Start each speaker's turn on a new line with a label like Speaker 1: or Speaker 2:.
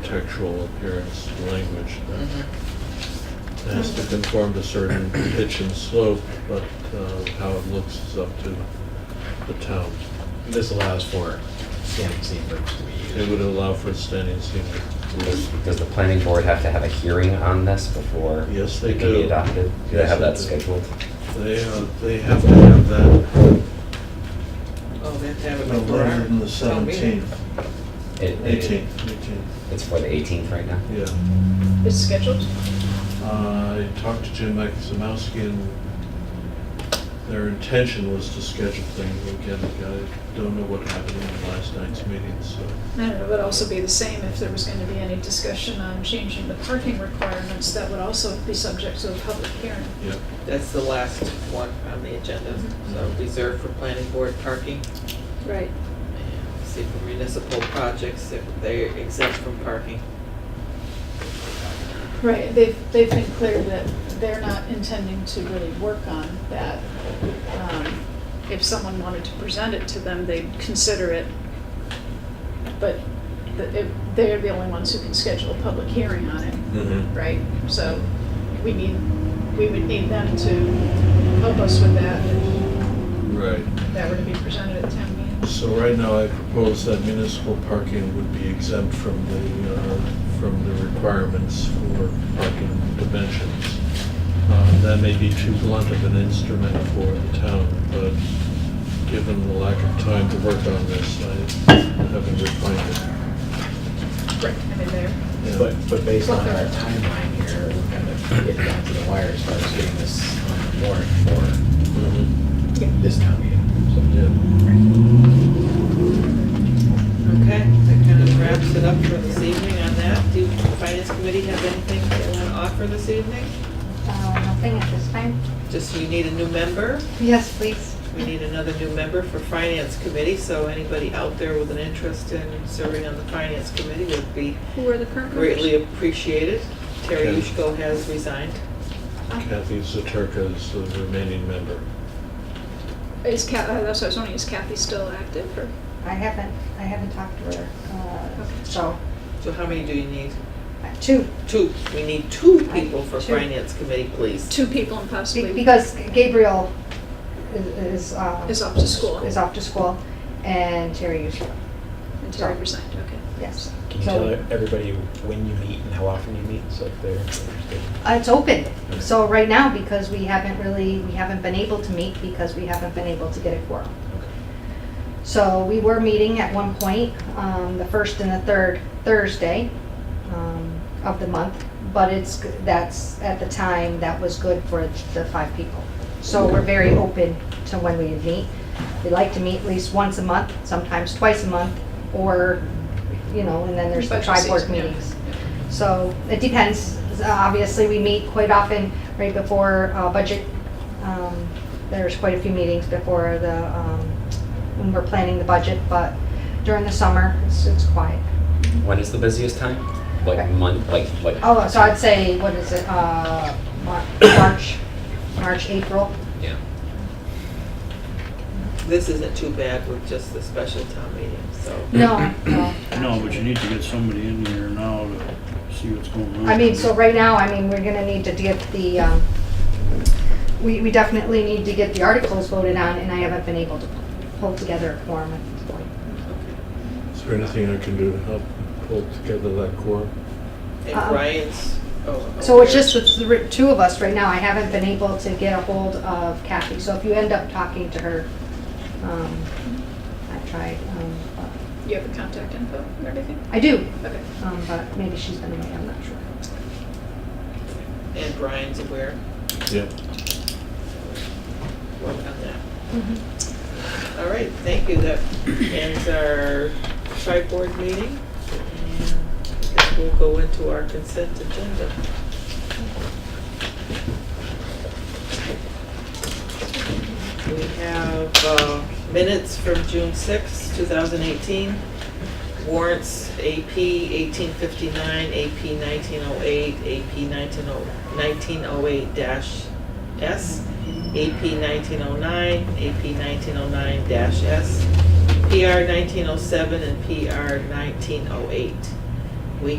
Speaker 1: architectural appearance language
Speaker 2: Mhm.
Speaker 1: that
Speaker 2: Mm-hmm.
Speaker 1: has to conform to certain pitch and slope, but uh, how it looks is up to the town.
Speaker 3: This allows for standing seam roofs to be used.
Speaker 1: It would allow for standing seating.
Speaker 4: Does does the planning board have to have a hearing on this before?
Speaker 1: Yes, they
Speaker 4: It can be
Speaker 1: do.
Speaker 4: adopted? Do they
Speaker 1: Yes,
Speaker 4: have
Speaker 1: they
Speaker 4: that
Speaker 1: do.
Speaker 4: scheduled?
Speaker 1: They, uh, they have to have that,
Speaker 2: Oh, they have to have it
Speaker 5: No
Speaker 2: before our
Speaker 5: later than the
Speaker 2: town meeting.
Speaker 5: seventeenth,
Speaker 4: It- it-
Speaker 5: eighteenth, eighteenth.
Speaker 4: It's for the 18th right now?
Speaker 1: yeah.
Speaker 6: It's scheduled?
Speaker 1: I talked to Jim Maximowski and their intention was to schedule things again. I don't know what happened in last night's meeting, so.
Speaker 6: And it would also be the same if there was going to be any discussion on changing the parking requirements, that would also be subject to a public hearing.
Speaker 1: Yeah,
Speaker 2: That's the last one on the agenda, so
Speaker 5: Mm-hmm.
Speaker 2: reserved for planning board parking.
Speaker 6: Right.
Speaker 2: And See, for municipal projects, if they're exempt from parking.
Speaker 6: Right, they've, they've been clear that they're not intending to really work on that. Um, If someone wanted to present it to them, they'd consider it, but the- if- they're the only ones who can schedule a public hearing on it. right? So we need, we would need them to help us with that, if
Speaker 1: right.
Speaker 6: that were to be presented at town meeting.
Speaker 1: So right now, I propose that municipal parking would be exempt from the, uh, from the requirements for parking dimensions. Uh, That may be too blunt of an instrument for the town, but given the lack of time to work on this, I haven't refined
Speaker 6: Right. I mean, there,
Speaker 1: it. Yeah.
Speaker 3: But, but based on our timeline here, we're kind of getting down to the wire as far as getting this on the warrant for
Speaker 1: Mhm.
Speaker 3: this town meeting.
Speaker 1: Yeah.
Speaker 2: Okay, that kind of wraps it up for this evening on that. Do the finance committee have anything they want to offer this evening?
Speaker 6: Um,
Speaker 7: Uh, Nothing at this time.
Speaker 2: Just you need a new member.
Speaker 7: Yes, please.
Speaker 2: We need another new member for finance committee, so anybody out there with an interest in serving on the finance committee would be
Speaker 6: who are the current members?
Speaker 2: greatly appreciated. Terry
Speaker 1: Okay.
Speaker 2: Ushko has resigned.
Speaker 6: Uh,
Speaker 1: Kathy Zaturka is the remaining member.
Speaker 6: Is Kathy, that's what I was wondering, is Kathy still active or?
Speaker 7: I haven't, I haven't talked to
Speaker 6: Okay.
Speaker 7: her, uh, so,
Speaker 2: So how many do you need?
Speaker 7: uh, two,
Speaker 2: Two. We need two people for
Speaker 7: Two.
Speaker 2: finance committee, please.
Speaker 6: Two people and
Speaker 7: be-
Speaker 6: possibly
Speaker 7: because Gabriel is, is, uh,
Speaker 6: is off to school
Speaker 7: is off to school, and Terry usually,
Speaker 6: and Terry resigned, okay.
Speaker 7: yes.
Speaker 3: Can you
Speaker 7: So-
Speaker 3: tell everybody when you meet and how often you meet, so if they're interested?
Speaker 7: Uh, It's open, so right now, because we haven't really, we haven't been able to meet, because we haven't been able to get a quorum. So we were meeting at one point, um, the first and the third Thursday, um, of the month, but it's, g- that's, at the time, that was good for the five people. So we're very open to when we meet. We like to meet at least once a month, sometimes twice a month, or, you know, and then there's the
Speaker 6: Budget
Speaker 7: tri-board
Speaker 6: season, yeah.
Speaker 7: meetings. So it depends. Obviously, we meet quite often right before uh, budget. Um, There's quite a few meetings before the, um, when we're planning the budget, but during the summer, it's it's quiet.
Speaker 1: Mm-hmm.
Speaker 4: When is the busiest time? Like month, like, like?
Speaker 7: Oh, so I'd say, what is it, uh, Mar- March, March, April?
Speaker 4: Yeah.
Speaker 2: This isn't too bad with just the special town meeting, so.
Speaker 7: No, no.
Speaker 8: No, but you need to get somebody in here now to see what's going on.
Speaker 7: I mean, so right now, I mean, we're gonna need to get the, um, we, we definitely need to get the articles voted on, and I haven't been able to pull together a quorum at this point.
Speaker 1: Is there anything I can do to help pull together that core?
Speaker 2: And
Speaker 7: Uh-uh.
Speaker 2: Ryan's. oh,
Speaker 7: So it's
Speaker 2: okay.
Speaker 7: just with the ri- two of us right now, I haven't been able to get a hold of Kathy, so if you end up talking to her, um, I tried, um, but-
Speaker 6: You have the contact info and everything?
Speaker 7: I do,
Speaker 6: Okay.
Speaker 7: um, but maybe she's been away, I'm not sure.
Speaker 2: And Brian's aware.
Speaker 1: Yep.
Speaker 2: Work on that. All right, thank you. That ends our tri-board meeting. And I guess we'll go into our consent agenda. We have uh, minutes from June sixth, two 2018. Warrants AP 1859, AP 1908, oh, AP 1908-S, AP 1909, AP 1909-S, PR 1907, and PR 1908.